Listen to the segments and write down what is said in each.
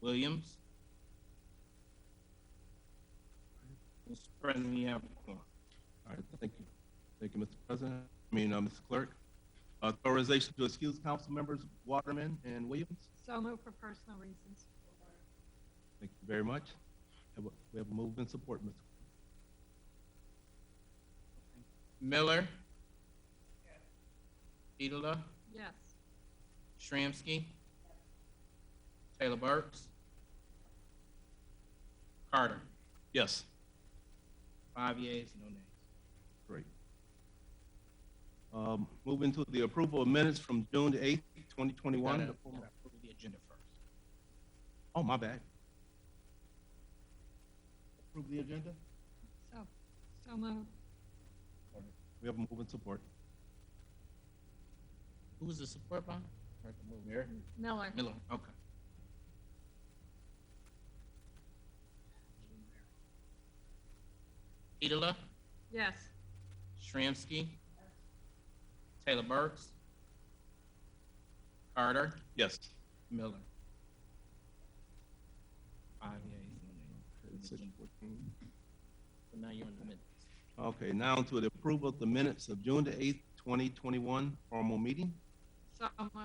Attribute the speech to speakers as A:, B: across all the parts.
A: Williams? Mr. President, you have a quorum.
B: All right, thank you. Thank you, Mr. President. I mean, uh, Mr. Clerk. Authorization to excuse council members Waterman and Williams.
C: So moved for personal reasons.
B: Thank you very much. Have a- We have a move and support, Mr. Clerk.
A: Miller? Petola?
C: Yes.
A: Shramsky? Taylor Burks? Carter?
B: Yes.
A: Five yeas, no nays.
B: Great. Um, Moving to the approval of minutes from June the eighth, twenty
A: Gotta-
B: twenty-one.
A: gotta approve the agenda first.
B: Oh, my bad. Approve the agenda?
C: So, so moved.
B: We have a move and support.
A: Who was the support by? Heard the move there.
C: Miller.
A: Miller, okay. Petola?
C: Yes.
A: Shramsky. Taylor Burks. Carter.
B: Yes.
A: Miller. Five yeas, no nays. So Now you're in the minutes.
B: Okay, now to the approval of the minutes of June the eighth, twenty twenty-one, formal meeting.
C: So moved.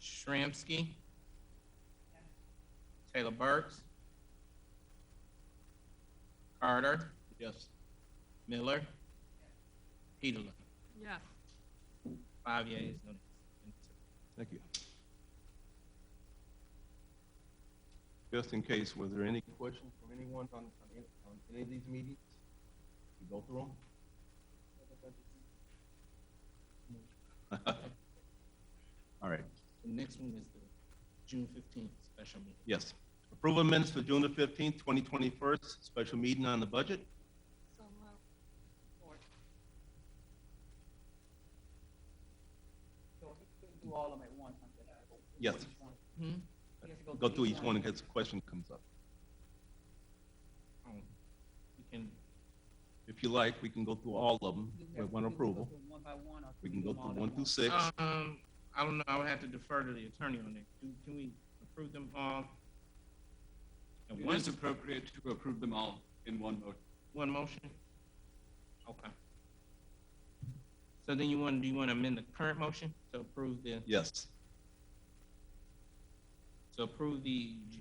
A: Shramsky. Taylor Burks. Carter.
B: Yes.
A: Miller. Petola.
C: Yes.
A: Five yeas, no nays.
B: Thank you. Just in case, was there any questions from anyone on, on any- on any of these meetings? We go through them? All right,
A: The next one is the June fifteenth special meeting.
B: yes. Approval of minutes for June the fifteenth, twenty twenty-first, special meeting on the budget.
C: So moved.
D: So we could do all of them at once, I'm just.
B: Yes.
D: Each one.
A: Hmm?
D: We have to
B: Go through each one in case a question comes up.
A: Um, We can,
B: If you like, we can go through all of them
D: Do we
B: with
D: have-
B: one
D: do we go
B: approval.
D: through One by one, or?
B: We can go
D: do them all
B: through
D: at
B: one through
D: once?
B: six.
A: um, I don't know, I would have to defer to the attorney on that. Do, can we approve them all? At
E: It
A: one,
E: is appropriate to approve them all in one vote.
A: one motion? Okay. So then you want, do you want to amend the current motion to approve the,
B: Yes,
A: to approve the Ju-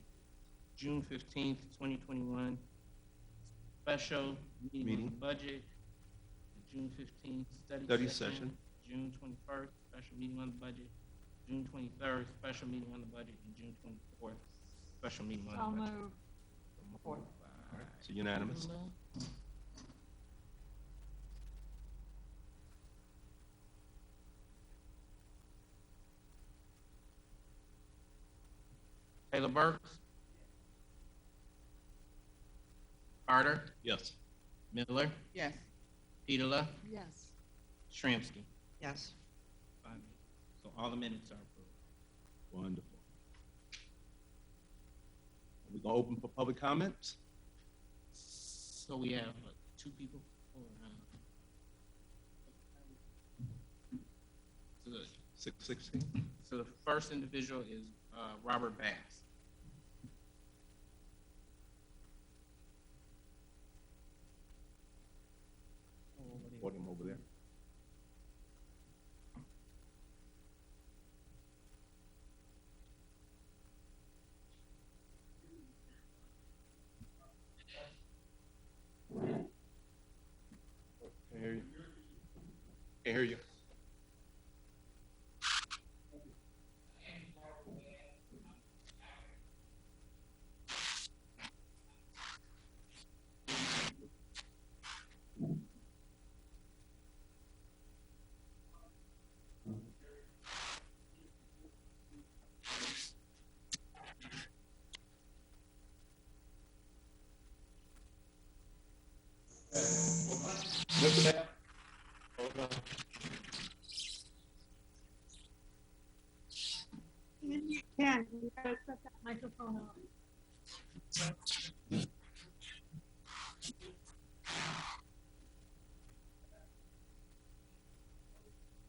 A: June fifteenth, twenty twenty-one special meeting
B: Meeting.
A: on the budget, the June fifteenth study
B: study
A: session,
B: session.
A: June twenty-first, special meeting on the budget, June twenty-third, special meeting on the budget, and June twenty-fourth, special meeting
C: So
A: on the budget.
C: moved.
A: All right.
B: So unanimous.
A: Taylor Burks? Carter?
B: Yes.
A: Miller?
D: Yes,
A: Petola?
C: Yes.
A: Shramsky?
D: yes.
A: Five minutes. So all the minutes are approved.
B: Wonderful. We're gonna open for public comments.
A: So we have uh, two people for, uh, so the-
B: Six sixteen.
A: So the first individual is uh, Robert Bass.
B: Podium over there. Can't hear you. Can't hear you.
C: You can, you gotta set that microphone on.